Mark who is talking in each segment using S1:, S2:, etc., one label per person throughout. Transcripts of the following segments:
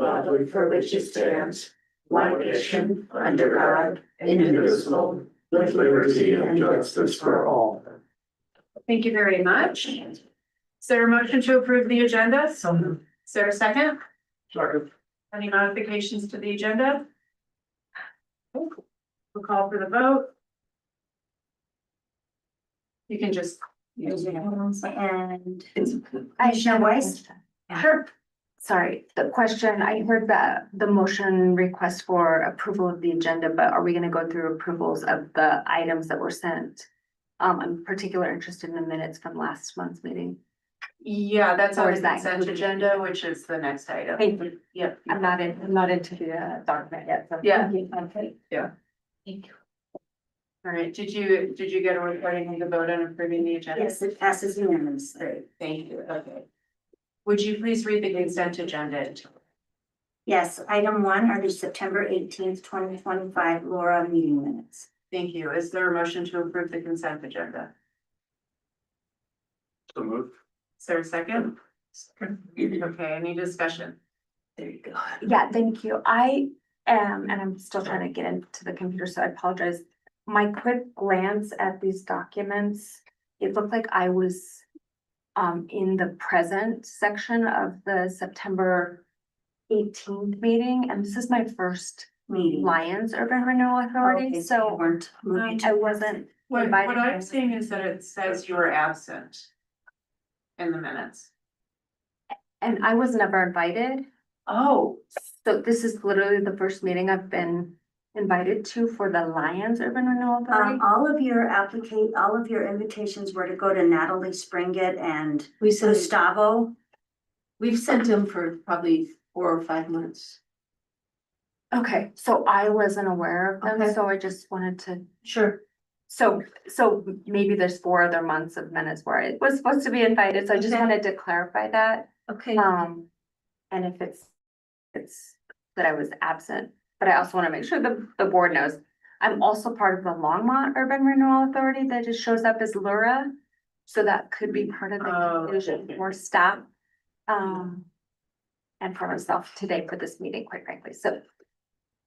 S1: republic for which it stands, one nation, under God, indivisible, with liberty and justice for all.
S2: Thank you very much. Is there a motion to approve the agenda? So
S1: moved.
S2: Is there a second?
S1: Second.
S2: Any modifications to the agenda? We'll call for the vote. You can just.
S3: And Aisha Weiss,
S2: Sure.
S3: sorry, the question, I heard that the motion request for approval of the agenda, but are we gonna go through approvals of the items that were sent? Um, I'm particularly interested in the minutes from last month's meeting.
S2: Yeah, that's on
S3: Or
S2: the
S3: is that
S2: consent
S3: included?
S2: agenda, which is the next item.
S3: Thank you.
S2: Yep.
S3: I'm not in, I'm not into the uh, document yet. so-
S2: Yeah.
S3: Okay.
S2: Yeah.
S3: Thank you.
S2: All right, did you, did you get a recording of the vote on approving the agenda?
S4: Yes, it passes unanimously.
S2: Thank you, okay. Would you please read the consent agenda?
S4: Yes, item one are the September eighteenth, twenty twenty-five Laura meeting minutes.
S2: Thank you. Is there a motion to approve the consent agenda?
S1: So moved.
S2: Is there a second? Okay, any discussion?
S4: There you go.
S3: Yeah, thank you. I am, and I'm still trying to get into the computer, so I apologize. My quick glance at these documents, it looked like I was um in the present section of the September eighteenth meeting, and this is my first
S4: Meeting.
S3: Lions Urban Renewal
S4: Okay,
S3: Authority,
S4: you
S3: so um,
S4: Weren't moving to.
S3: I wasn't.
S2: What,
S3: Invited
S2: what I'm
S3: him.
S2: seeing is that it says you were absent in the minutes.
S3: And I was never invited,
S2: Oh,
S3: so this is literally the first meeting I've been invited to for the Lions Urban Renewal Authority.
S4: Um, all of your applicate, all of your invitations were to go to Natalie Springett and
S5: We sent,
S4: Gustavo.
S5: we've sent them for probably four or five months.
S3: Okay, so I wasn't aware of them,
S5: Okay.
S3: so I just wanted to,
S5: Sure.
S3: so, so maybe there's four other months of minutes where it was supposed to be invited, so I just
S5: Okay.
S3: wanted to clarify that.
S5: Okay,
S2: Mm-hmm.
S3: Um, and if it's, it's that I was absent, but I also wanna make sure the, the board knows. I'm also part of the Longmont Urban Renewal Authority that just shows up as Lura, so that could be part of the
S2: Oh,
S3: confusion or stop. Um, and for myself today for this meeting, quite frankly, so
S2: okay.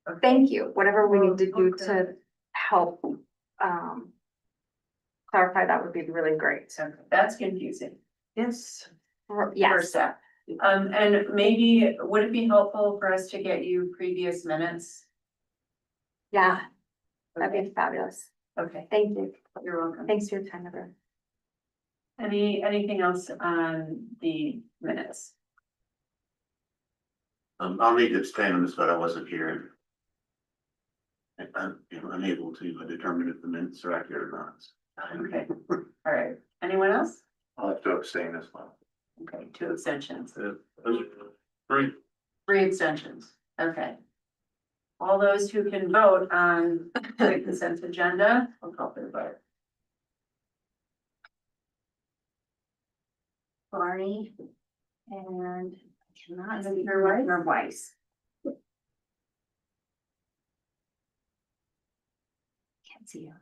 S2: Oh,
S3: thank you, whatever we need to do
S2: Okay.
S3: to help, um. Clarify that would be really great,
S2: So that's confusing.
S5: yes.
S3: For-
S2: for
S3: yes,
S2: staff. Um, and maybe, would it be helpful for us to get you previous minutes?
S3: yeah, that'd be fabulous,
S2: Okay,
S3: thank you,
S2: you're welcome.
S3: thanks for your time, everyone.
S2: Any, anything else on the minutes?
S6: Um, I'll need to abstain on this, but I wasn't here. I- I'm, you know, unable to determine if the minutes are accurate or
S2: Okay, all right. Anyone else?
S6: not. I'll have to abstain as well.
S2: Okay, two abstentions,
S6: Three.
S2: three abstentions. Okay. All those who can vote on the consent agenda, will call for the vote.
S4: Barney and I cannot
S2: Is it
S4: see
S2: your wife?
S4: Your Weiss. Can't see you.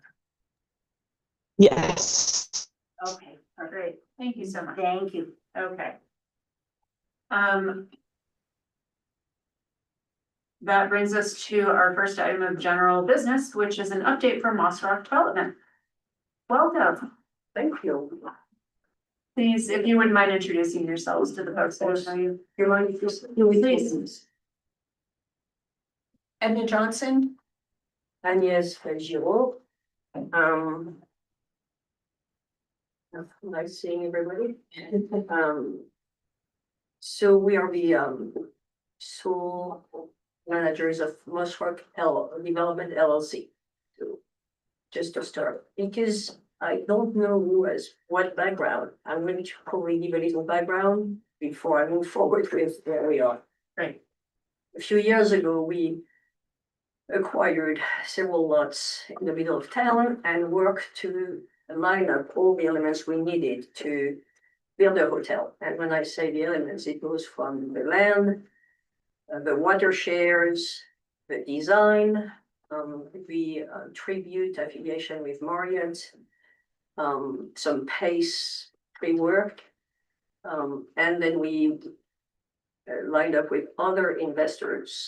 S7: Yes.
S4: Okay, perfect.
S2: Great, thank you so much.
S4: Thank you.
S2: Okay. Um. That brings us to our first item of general business, which is an update from Moss Rock Development. Welcome. Thank you. Please, if you wouldn't mind introducing yourselves to the folks. that know you.
S5: Your line is, your business. Edna Johnson. Agnes Fajul. Um. Nice seeing everybody. Um. So we are the um sole managers of Moswork L Development LLC. So, Just to start, because I don't know who has what background, I'm going to probably give a little background before I move forward with where we are.
S2: Great.
S5: A few years ago, we acquired several lots in the middle of town and worked to line up all the elements we needed to build a hotel. And when I say the elements, it goes from the land, uh, the water shares, the design, um, the uh, tribute affiliation with Marriott, um, some pace pre-work. Um, and then we uh, lined up with other investors